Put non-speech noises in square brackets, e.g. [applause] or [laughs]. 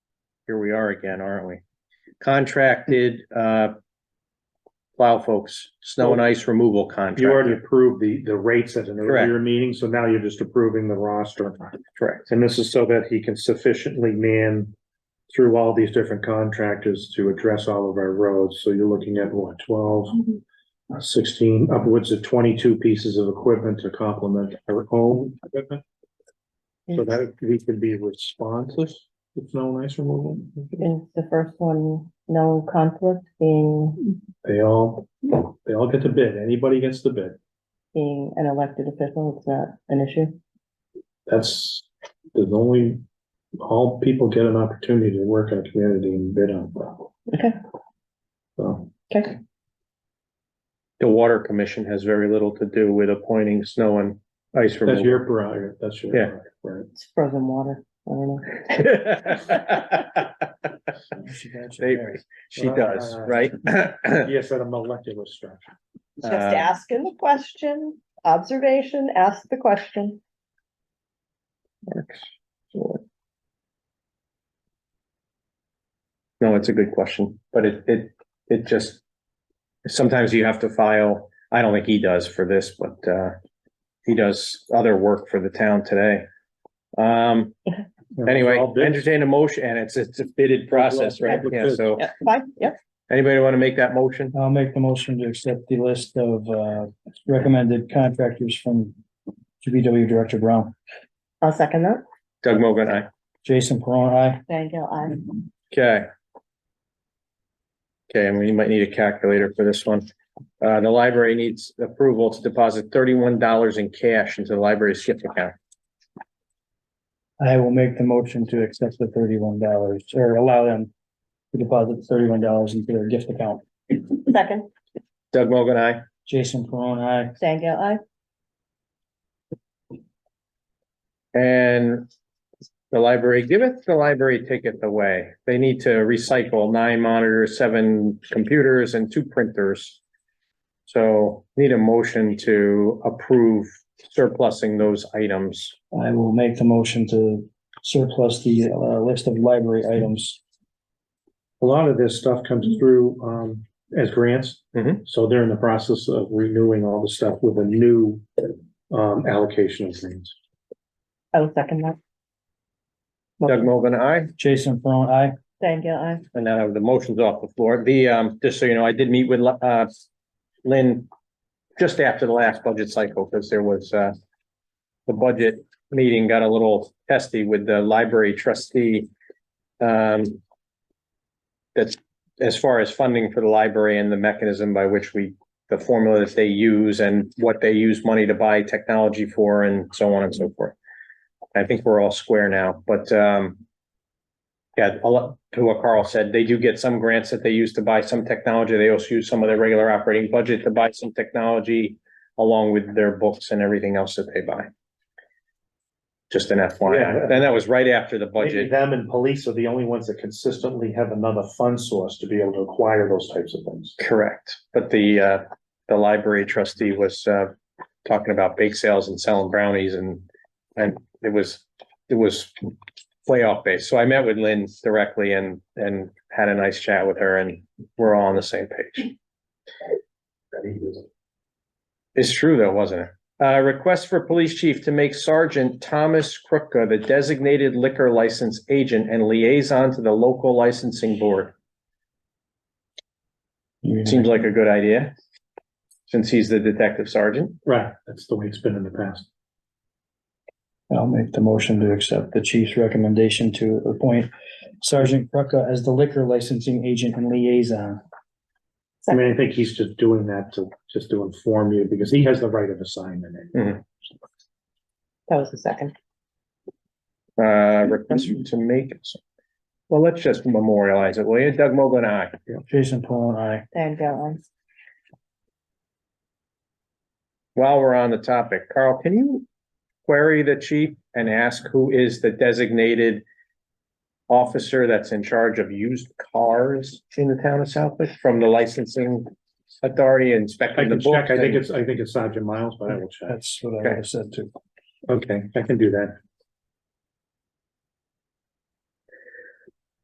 here we are again, aren't we? Contracted, uh, plow folks, snow and ice removal You already contract. approved the, the rates at an Correct. earlier meeting, so now you're just approving the roster. Correct. And this is so that he can sufficiently man through all these different contractors to address all of our roads. So you're looking at what, twelve, uh, sixteen, upwards of twenty-two pieces of equipment to complement our own equipment? So that we can be responsive to snow and ice removal. Is the first one no conflict being, They all, they all get the bid. Anybody gets the bid. being an elected official, it's not an issue? That's, there's only, all people get an opportunity to work in a community and bid on. it. Okay. So, Okay, The water commission has very little to do with appointing snow and ice that's removal. [laughs] your prerogative, that's your. Yeah. prerogative, Right. it's frozen water, I don't know. They- She uh, does, right? [clears throat] Yes, at a molecular structure. Just Uh, asking the question, observation, ask the question. No, it's a good question, but it, it, it just, sometimes you have to file, I don't think he does for this, but, uh, he does other work for the town today. Um, anyway, All bids. entertain a motion, and it's, it's a bidded process, right? Yeah, so, Yeah, fine, yep. anybody want to make that motion? I'll make the motion to accept the list of uh recommended contractors from GBW Director Brown. I'll second that. Doug Mogul, aye. Jason Perron, aye. Thank you, I. Okay. Okay, and we might need a calculator for this one. Uh, the library needs approval to deposit thirty-one dollars in cash into the library's gift account. I will make the motion to accept the thirty-one dollars or allow them to deposit thirty-one dollars into their gift account. Second, Doug Mogul, aye. Jason Perron, aye. thank you, I. And the library giveth, the library taketh away. They need to recycle nine monitors, seven computers and two printers. So need a motion to approve surplusing those items. I will make the motion to surplus the uh list of library items. A lot of this stuff comes through, um, as grants. Mhm. So they're in the process of renewing all the stuff with a new, um, allocation of things. I'll second that. Doug Mogul, aye. Jason Perron, aye. Thank you, I. And now the motion's off the floor. The, um, just so you know, I did meet with, uh, Lynn just after the last budget cycle, because there was, uh, the budget meeting got a little testy with the library trustee. Um, that's as far as funding for the library and the mechanism by which we, the formula that they use and what they use money to buy technology for and so on and so forth. I think we're all square now, but, um, yeah, a lot to what Carl said, they do get some grants that they use to buy some technology. They also use some of their regular operating budget to buy some technology along with their books and everything else that they buy. Just an FYI. And that was right after the Maybe budget. them and police are the only ones that consistently have another fund source to be able to acquire those types of things. Correct. But the, uh, the library trustee was, uh, talking about bake sales and selling brownies and, and it was, it was way off base. So I met with Lynn directly and, and had a nice chat with her and we're all on the same page. It's true though, wasn't it? Uh, request for police chief to make Sergeant Thomas Krupka the designated liquor license agent and liaison to the local licensing board. Seems like a good idea. Since he's the detective sergeant. Right, that's the way it's been in the past. I'll make the motion to accept the chief's recommendation to appoint Sergeant Krucka as the liquor licensing agent and liaison. I mean, I think he's just doing that to, just to inform you, because he has the right of assignment. That was the second. Uh, request to make. Well, let's just memorialize it, will you? Doug Mogul and I. Jason Perron, aye. Thank you, I. While we're on the topic, Carl, can you query the chief and ask who is the designated officer that's in charge of used cars in the town of Southwick from the licensing authority I inspecting the can book? check, I think it's, I think it's Sergeant Miles, but I will check. That's what I would have said too. Okay, I can do that.